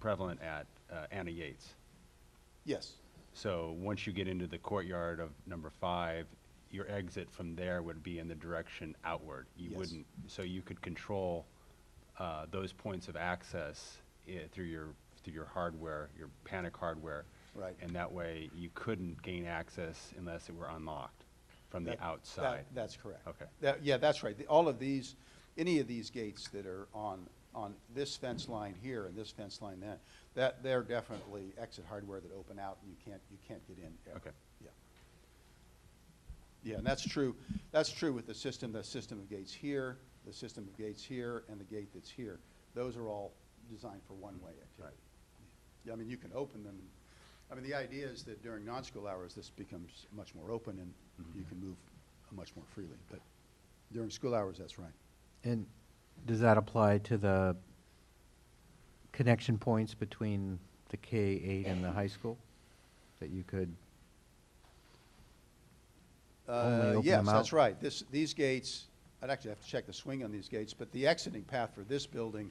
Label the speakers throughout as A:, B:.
A: prevalent at uh, Anna Yates.
B: Yes,
A: So once you get into the courtyard of number five, your exit from there would be in the direction outward. You
B: Yes.
A: wouldn't, so you could control uh, those points of access eh, through your, through your hardware, your panic hardware.
B: Right.
A: And that way, you couldn't gain access unless it were unlocked from the
B: That- that-
A: outside.
B: That's correct.
A: Okay.
B: That- yeah, that's right. The- All of these, any of these gates that are on, on this fence line here and this fence line then, that, they're definitely exit hardware that open out and you can't, you can't get in. ever.
A: Okay.
B: Yeah. Yeah, and that's true, that's true with the system, the system of gates here, the system of gates here, and the gate that's here. Those are all designed for one-way activity.
A: Right.
B: Yeah, I mean, you can open them. I mean, the idea is that during non-school hours, this becomes much more open and you can move much more freely. But during school hours, that's right.
C: And does that apply to the connection points between the K-8 and the high school? That you could,
B: Uh,
C: Only open
B: Yes,
C: them
B: that's
C: out?
B: right. This, these gates, I'd actually have to check the swing on these gates, but the exiting path for this building,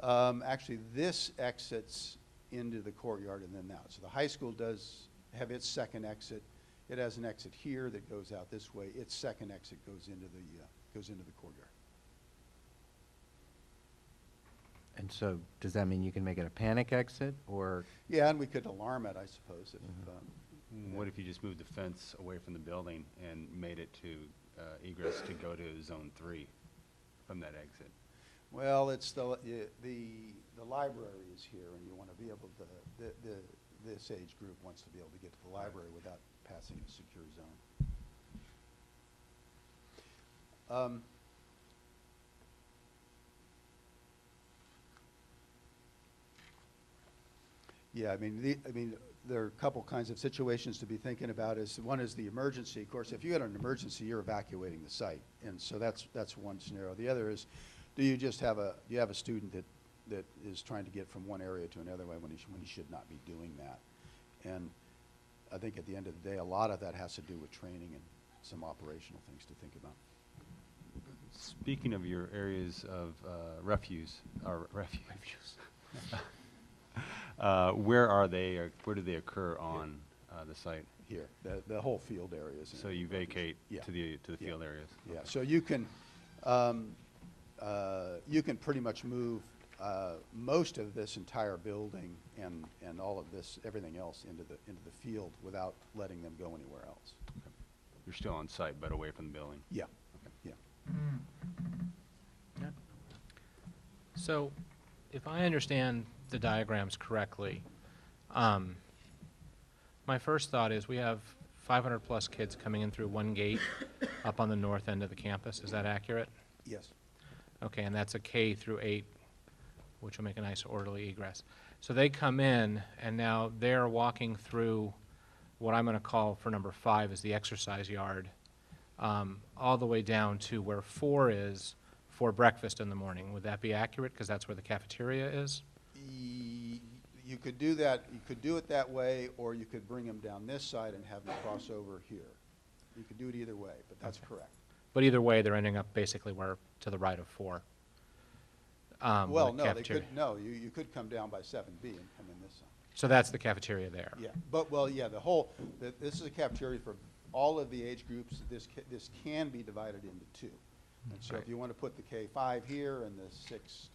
B: um, actually, this exits into the courtyard and then out. So the high school does have its second exit. It has an exit here that goes out this way. Its second exit goes into the, uh, goes into the courtyard.
C: and so, does that mean you can make it a panic exit, or,
B: Yeah, and we could alarm it, I suppose, if,
C: Mm-hmm.
B: um,
A: What if you just moved the fence away from the building and made it to uh, egress to go to zone three from that exit?
B: Well, it's the, yeah, the, the library is here, and you want to be able to, the, the, this age group wants to be able to get to the library without passing a secure zone. Um, Yeah, I mean, the, I mean, there are a couple kinds of situations to be thinking about is, one is the emergency. Of course, if you had an emergency, you're evacuating the site. And so that's, that's one scenario. The other is, do you just have a, do you have a student that, that is trying to get from one area to another way when he, sh- when he should not be doing that? And I think at the end of the day, a lot of that has to do with training and some operational things to think about.
A: Speaking of your areas of uh, refuse, or refuge. Uh, where are they, or where do they occur on uh, the site?
B: Here, the, the whole field area is. in
A: So
B: it.
A: you vacate
B: Yeah.
A: to the, to the
B: Yeah.
A: field areas?
B: Yeah, so you can, um, uh, you can pretty much move, uh, most of this entire building and, and all of this, everything else into the, into the field without letting them go anywhere else.
A: You're still on site, but away from the building?
B: Yeah, yeah.
D: So, if I understand the diagrams correctly, um, my first thought is we have 500-plus kids coming in through one gate up on the north end of the campus. Is that accurate?
B: Yes,
D: Okay, and that's a K through 8, which will make a nice orderly egress. So they come in, and now they're walking through what I'm going to call for number 5 is the exercise yard, um, all the way down to where 4 is for breakfast in the morning. Would that be accurate? Because that's where the cafeteria is?
B: E- you could do that, you could do it that way, or you could bring them down this side and have them cross over here. You could do it either way, but that's correct.
D: But either way, they're ending up basically where, to the right of 4. um, with
B: Well,
D: the
B: no, they could,
D: cafeteria.
B: no, you, you could come down by seven B and come in this side.
D: So that's the cafeteria there?
B: Yeah, but, well, yeah, the whole, th- this is a cafeteria for all of the age groups. This, ca- this can be divided into two. And so if
D: Right.
B: you want to put the K-5 here and the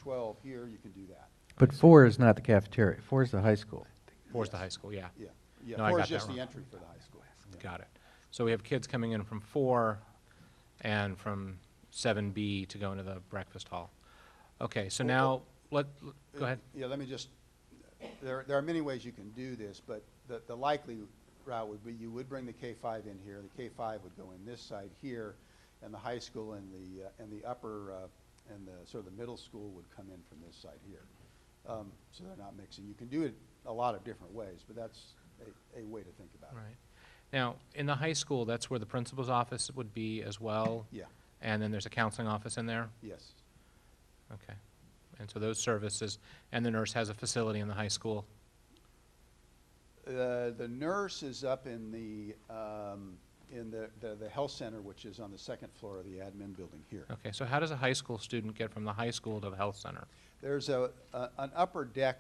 B: 6-12 here, you can do that.
C: but four is not the cafeteria, four is the high school.
D: Four's the
B: Yes.
D: high school, yeah.
B: Yeah, yeah.
D: No, I
B: Four
D: got
B: is
D: that
B: just the
D: wrong.
B: entry for the high school. Yeah.
D: Got it. So we have kids coming in from four and from seven B to go into the breakfast hall. Okay, so
B: Oh, oh.
D: now, let, go ahead.
B: Yeah, let me just, there, there are many ways you can do this, but the, the likely route would be you would bring the K-5 in here, the K-5 would go in this side here, and the high school and the, uh, and the upper, uh, and the, sort of the middle school would come in from this side here. Um, So they're not mixing. You can do it a lot of different ways, but that's a, a way to think about it.
D: Right. Now, in the high school, that's where the principal's office would be as well?
B: Yeah,
D: And then there's a counseling office in there?
B: yes,
D: Okay. And so those services, and the nurse has a facility in the high school?
B: Uh, The nurse is up in the, um, in the, the the health center, which is on the second floor of the admin building here.
D: Okay, so how does a high school student get from the high school to the health center?
B: There's a, a- an upper deck